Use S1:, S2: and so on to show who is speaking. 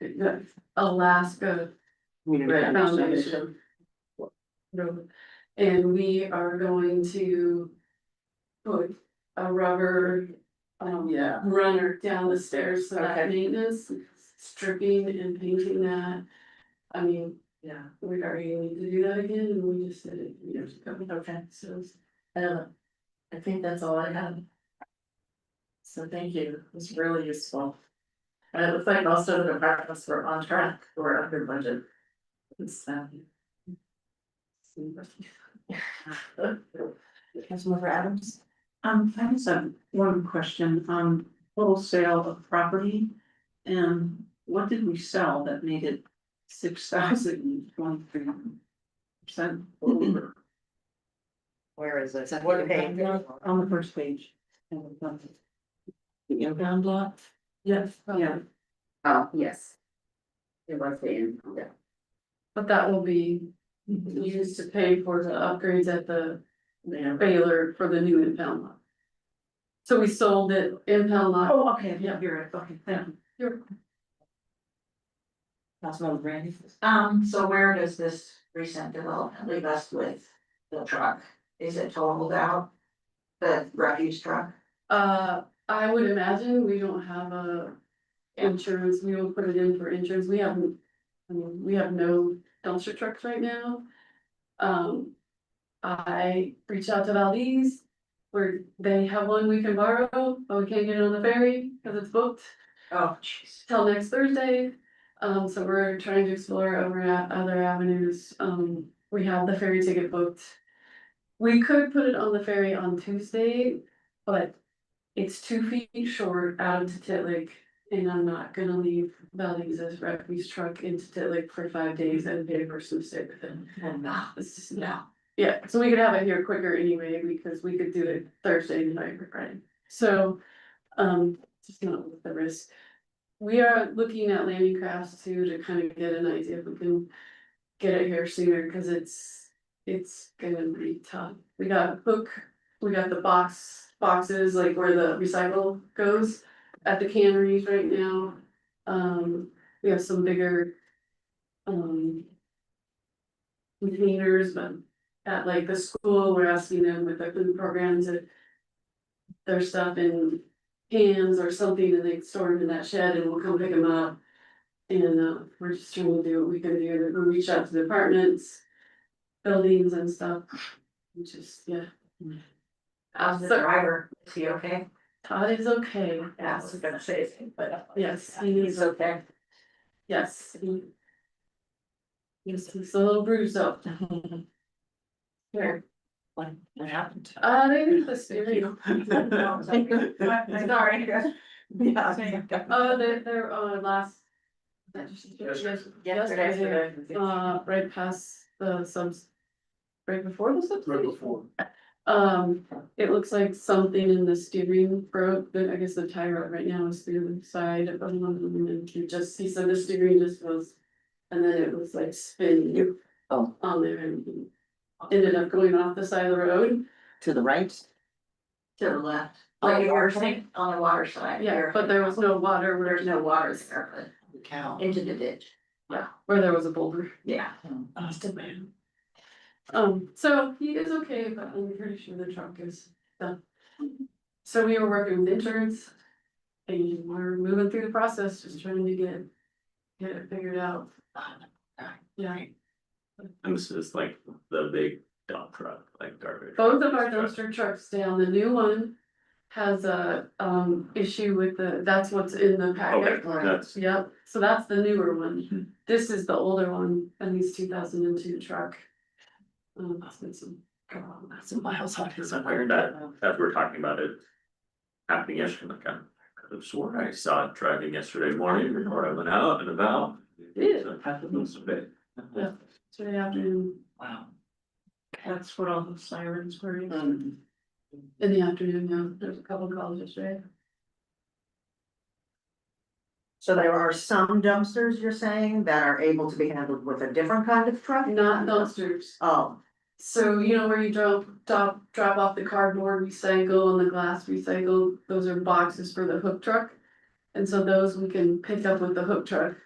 S1: the Alaska Red Foundation. No. And we are going to put a rubber, um,
S2: Yeah.
S1: runner down the stairs, so that
S2: Okay.
S1: maintenance, stripping and painting that. I mean,
S2: Yeah,
S1: we already need to do that again, and we just did it years ago,
S2: okay,
S1: so.
S2: uh, I think that's all I have. So thank you, it was really useful. And it looks like most of the departments were on track, were under budget. It's, um,
S3: Councilmember Adams? Um, I just have one question, um, total sale of property. And what did we sell that made it six thousand twenty-three percent over
S4: Where is this? What page?
S3: on the first page?
S5: Oh,
S3: The impound lot?
S1: Yes.
S3: Yeah.
S4: Oh, yes. It was the end, yeah.
S1: But that will be used to pay for the upgrades at the
S2: yeah,
S1: Baylor for the new impound lot. So we sold it impound lot
S3: Oh, okay, yeah, you're right, okay, thank you.
S6: Councilmember Brandy?
S5: Um, so where does this recent development leave us with the truck? Is it totaled out? The refuse truck?
S1: Uh, I would imagine we don't have a insurance, we don't put it in for insurance, we haven't, I mean, we have no dumpster trucks right now. Um, I reached out to Valdez, where they have one we can borrow, but we can't get it on the ferry, cause it's booked
S5: Oh, jeez.
S1: till next Thursday. Um, so we're trying to explore over at other avenues. Um, we have the ferry ticket booked. We could put it on the ferry on Tuesday, but it's two feet short out of Titlic. And I'm not gonna leave Valdez's refuse truck in Titlic for five days and pay a person to stay with him.
S5: uh,
S1: Ah, it's just, no. Yeah, so we could have it here quicker anyway, because we could do it Thursday night, right? So, um, just not with the risk. We are looking at landing crafts too, to kind of get an idea if we can get it here sooner, cause it's, it's gonna be tough. We got a book, we got the box, boxes, like where the recycle goes at the canneries right now. Um, we have some bigger, um, containers, but at like the school, we're asking them with the food programs if their stuff in cans or something and they store them in that shed and we'll come pick them up. And uh, we're just trying to do what we can do to reach out to the apartments, buildings and stuff, which is, yeah.
S5: How's the
S1: So-
S5: driver? Is he okay?
S1: Todd is okay,
S5: Yeah,
S2: I was gonna say, something,
S5: uh,
S2: but.
S1: yes, he
S5: He's
S1: is,
S5: okay.
S1: yes, he. Yes, he's a little bruised up. Here,
S6: What what happened?
S1: uh, they need the stereo,
S5: Sorry.
S6: Yeah.
S1: uh, they they're uh last. Yes- Yesterday, uh, right past the subs. Right before the subs.
S7: Right before.
S1: Um, it looks like something in the steering broke, but I guess the tire right now is through the side of one of them and you just, he said the steering just was. And then it was like spinning.
S6: Oh.
S1: On there and he ended up going off the side of the road.
S6: To the right?
S5: To the left.
S1: On the
S5: Like you
S1: water
S5: were saying, on the water side.
S1: Yeah,
S5: here.
S1: but there was no water where
S5: There's no water there,
S6: The cow.
S5: but into the ditch.
S1: where there was a boulder.
S5: Yeah.
S1: Um, so he is okay, but I'm pretty sure the truck is done. So we were working with insurance. And we're moving through the process, just trying to get, get it figured out. Yeah,
S7: And this is like the big dump truck, like garbage.
S1: both of our dumpster trucks down, the new one has a, um, issue with the, that's what's in the
S7: Okay,
S1: packet.
S7: that's,
S1: Yep, so that's the newer one. This is the older one, and these two thousand and two truck. Um, that's been some.
S6: That's a miles on his.
S7: Somewhere that- as we're talking about it. Happening yesterday, like I could have sworn I saw it driving yesterday morning before I went out and about.
S1: Yeah.
S7: So it happens a bit.
S1: Yeah. Today afternoon,
S6: Wow.
S3: That's what all the sirens were. in.
S6: Mm.
S4: Um,
S1: in the afternoon, yeah, there's a couple calls yesterday.
S4: So there are some dumpsters, you're saying, that are able to be handled with a different kind of truck?
S1: Not dumpsters,
S4: Oh,
S1: so you know where you drop, drop, drop off the cardboard recycle and the glass recycle, those are boxes for the hook truck. And so those we can pick up with the hook truck